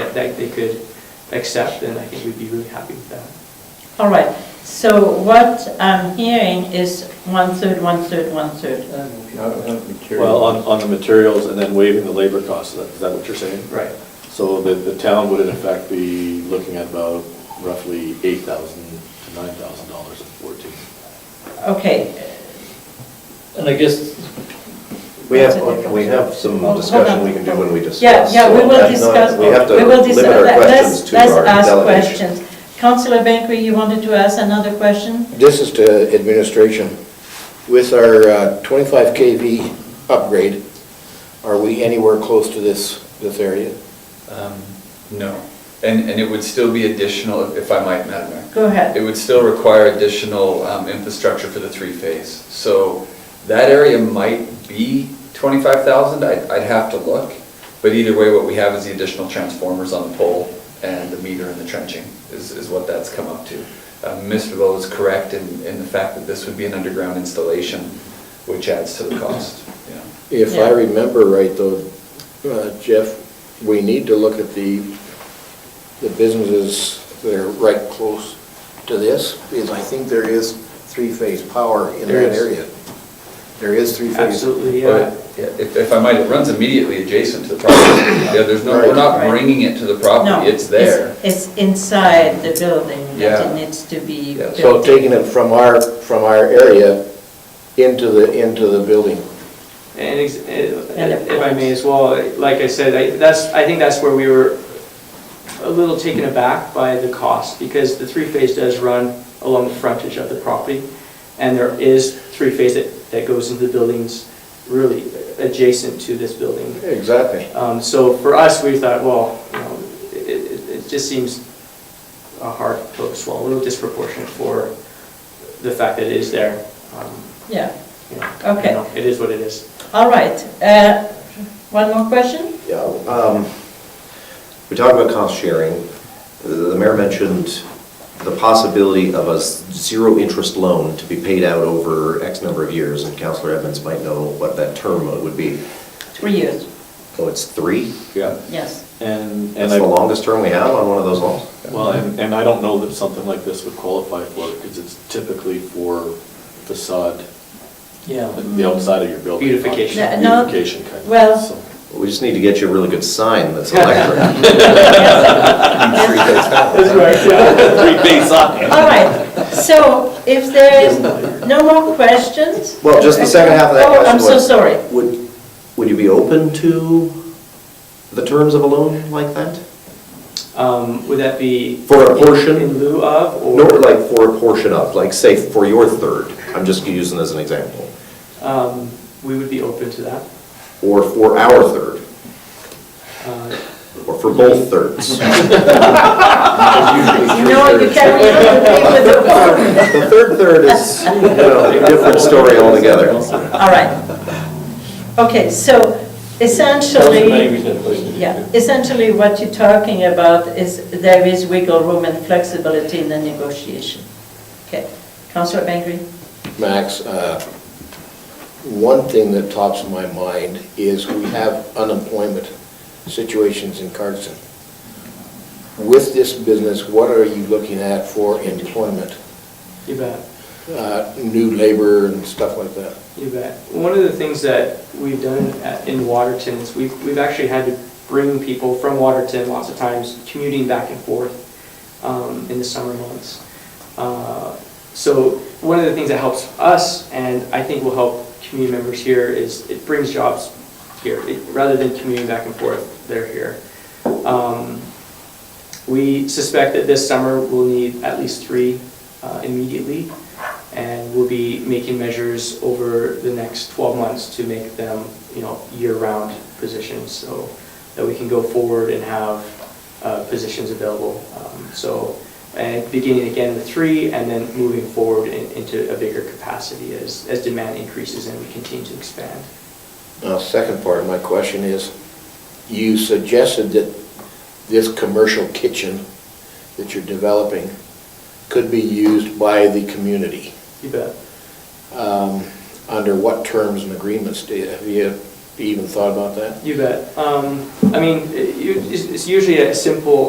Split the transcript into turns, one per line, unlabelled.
that they could accept, and I think we'd be really happy with that.
All right, so what I'm hearing is one-third, one-third, one-third.
Well, on, on the materials and then waiving the labor costs, is that- is that what you're saying?
Right.
So the, the town would in effect be looking at about roughly eight thousand to nine thousand dollars in fourteen.
Okay,
And I guess,
We have, we have some discussion we can do when we discuss.
yeah, yeah, we
so
will
that's
discuss.
not- We have to
will dis-
limit our
let- let's-
questions to our
Let's ask
delegation.
questions. Councillor Bangery, you wanted to ask another question?
This is to administration. With our uh, 25 KV upgrade, are we anywhere close to this, this area?
Um, No, and, and it would still be additional, if I might, Madam Mayor.
Go ahead.
It would still require additional um, infrastructure for the three-phase. So that area might be 25,000, I'd, I'd have to look. But either way, what we have is the additional transformers on the pole and the meter and the trenching is, is what that's come up to. Uh, Ms. Velo is correct in, in the fact that this would be an underground installation, which adds to the cost, you know.
If
Yeah.
I remember right, though, uh, Jeff, we need to look at the, the businesses that are right close to this, because I think there is three-phase power in
There
that
is.
area. There is three-phase.
Absolutely,
But,
yeah.
yeah, If, if I might, it runs immediately adjacent to the property. Yeah, there's no, we're not
Right.
bringing it to the
No,
property, it's there.
It's inside the building that
Yeah.
it needs to be
Yeah,
built.
So taking it from our, from our area into the, into the building.
And ex-
And of
eh, if I may
course.
as well, like I said, I- that's, I think that's where we were a little taken aback by the cost, because the three-phase does run along the frontage of the property, and there is three-phase that, that goes into the buildings really adjacent to this building.
Exactly.
Um, So for us, we thought, well, you know, it- it it just seems a hard pill to swallow, a little disproportionate for the fact that it is there. Um,
Yeah,
you know,
Okay.
you know, It is what it is.
all right. Uh, One more question?
Yeah, um, We talked about cost sharing. The- The mayor mentioned the possibility of a zero-interest loan to be paid out over X number of years, and Counselor Edmonds might know what that term would be.
Three years,
Oh, it's three?
Yeah.
yes.
And, and
That's
I,
the longest term we have on one of those loans?
well, and, and I don't know that something like this would qualify for it because it's typically for facade,
yeah,
the outside of your building.
Beautification.
Yeah, no,
Beautification kind of.
well-
so.
We just need to get you a really good sign that's electric.
That's right,
Three-phase sign.
All right, so if there is no more questions?
Well, just the second half of that
Oh, I'm
question
so
was-
sorry.
Would, would you be open to the terms of a loan like that?
Um, Would that be?
For a portion?
In lieu of,
No,
or?
like for a portion of, like say for your third, I'm just using as an example,
Um, We would be open to that.
or for our third,
Uh,
or for both thirds.
No, you can't really with the phone.
The third third is, you know, a different story altogether.
All right. Okay, so essentially, yeah, essentially what you're talking about is there is wiggle room and flexibility in the negotiation. Okay, Councillor Bangry?
Max, uh, one thing that tops my mind is we have unemployment situations in Carson. With this business, what are you looking at for employment,
You bet.
Uh, new labor and stuff like that?
You bet. One of the things that we've done at- in Waterton is we've, we've actually had to bring people from Waterton lots of times, commuting back and forth um, in the summer months. Uh, So one of the things that helps us, and I think will help community members here, is it brings jobs here. It- Rather than commuting back and forth, they're here. Um, We suspect that this summer we'll need at least three uh, immediately, and we'll be making measures over the next 12 months to make them, you know, year-round positions, so that we can go forward and have uh, positions available. Um, So, and beginning again with three, and then moving forward in- into a bigger capacity as, as demand increases and we continue to expand.
Now, second part of my question is, you suggested that this commercial kitchen that you're developing could be used by the community.
You bet.
Um, Under what terms and agreements do you, have you You even thought about that?
You bet. Um, I mean, it- it's it's usually a simple